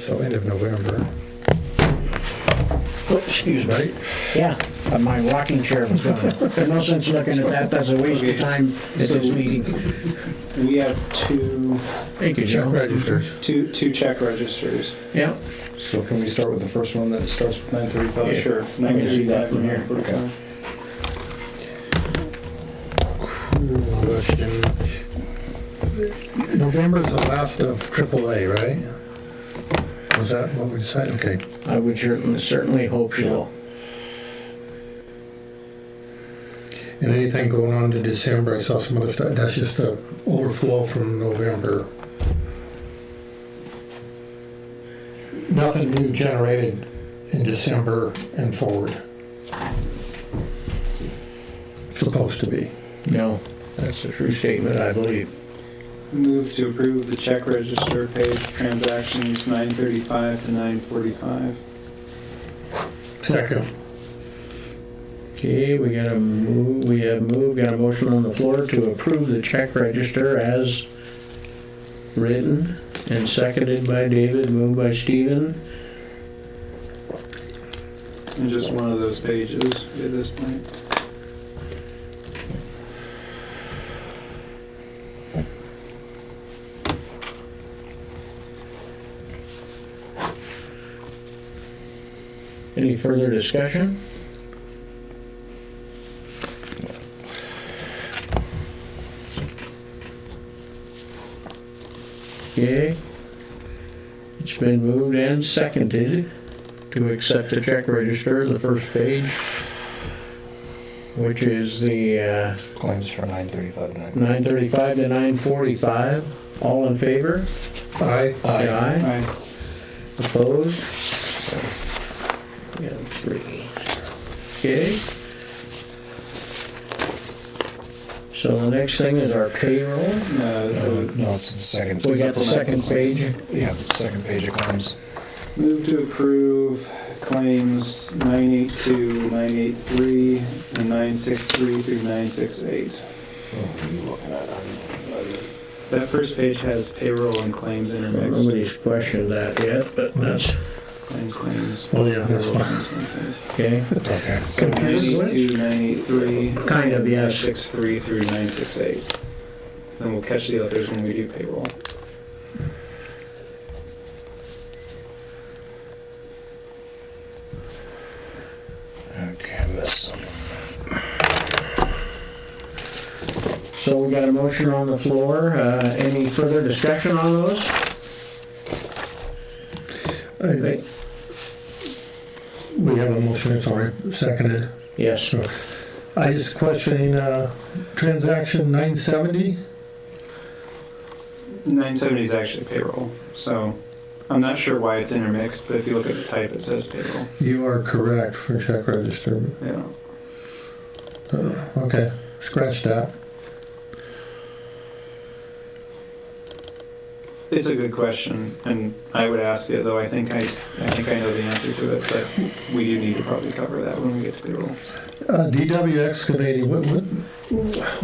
So end of November, Oops, Excuse me. right? Yeah, but my rocking chair was gone. There's no sense looking at that, that's a waste of time at this meeting. We have two, Thank you, Check Joe. registers. two, two check registers. Yeah, So can we start with the first one that starts with nine thirty-five? Yeah. Sure. I can see that from here. Okay. Question. November's the last of AAA, right? Was that what we decided? Okay. I would certainly, certainly hope so. And anything going on to December? I saw some other stuff. That's just the overflow from November. Nothing new generated in December and forward. Supposed to be. No, that's a true statement, I believe. Move to approve the check register page transactions nine thirty-five to nine forty-five. Second. Okay, we got a move, we have moved, got a motion on the floor to approve the check register as written and seconded by David, moved by Stephen. And just one of those pages at this point. Any further discussion? Okay. It's been moved and seconded to accept the check register, the first page, which is the uh, Claims for nine thirty-five to nine. 935 to 945. All in favor? Aye. Aye. Aye. Opposed? We have three. Okay. So the next thing is our payroll. Uh, No, it's the second. We got the second page. Yeah, the second page of claims. Move to approve claims nine eight two, nine eight three, and nine six three through nine six eight. That first page has payroll and claims intermixed. Nobody's questioned that yet, but that's, And claims. Oh, yeah, that's fine. okay. Okay. Confused with it? 982, 983. Kind of, yes. 963 through 968. Then we'll catch the others when we do payroll. Okay, this. So we got a motion on the floor. Uh, Any further discussion on those? Aye. We have a motion, it's already seconded. Yes. So I just questioning, uh, transaction nine seventy? 970 is actually payroll. So I'm not sure why it's intermixed, but if you look at the type, it says payroll. You are correct for check register. Yeah. Uh, Okay, scratch that. It's a good question, and I would ask it, though I think I, I think I know the answer to it, but we do need to probably cover that when we get to payroll. Uh, DW excavating, what, what,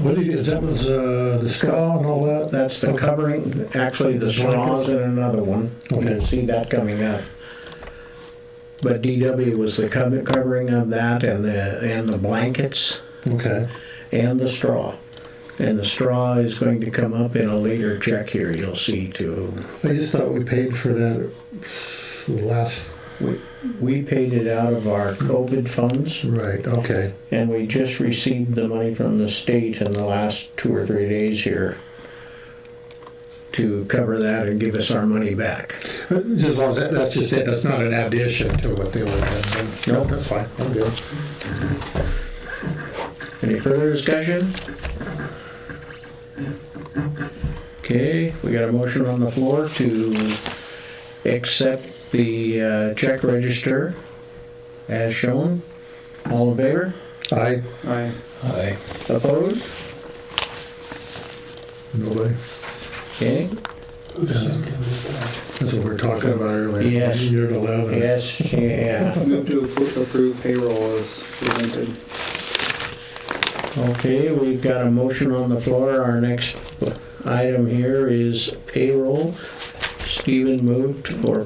what did, is that was, uh, the straw and all that? That's the covering, actually the straws and another one. You Okay. didn't see that coming up. But DW was the cover- covering of that and the, and the blankets Okay, and the straw. And the straw is going to come up in a later check here, you'll see too. I just thought we paid for that last, We paid it out of our COVID funds right, okay, and we just received the money from the state in the last two or three days here to cover that and give us our money back. Uh, just as long as that, that's just it, that's not an addition to what they were doing. No, that's fine, I'm good. Any further discussion? Okay, we got a motion on the floor to accept the uh, check register as shown. All in favor? Aye, Aye. Aye. Opposed? nobody? Okay, That's what we were talking about earlier. Yes. Year to eleven. yes, yeah. Move to appro- approve payroll as presented. Okay, we've got a motion on the floor. Our next item here is payroll. Stephen moved for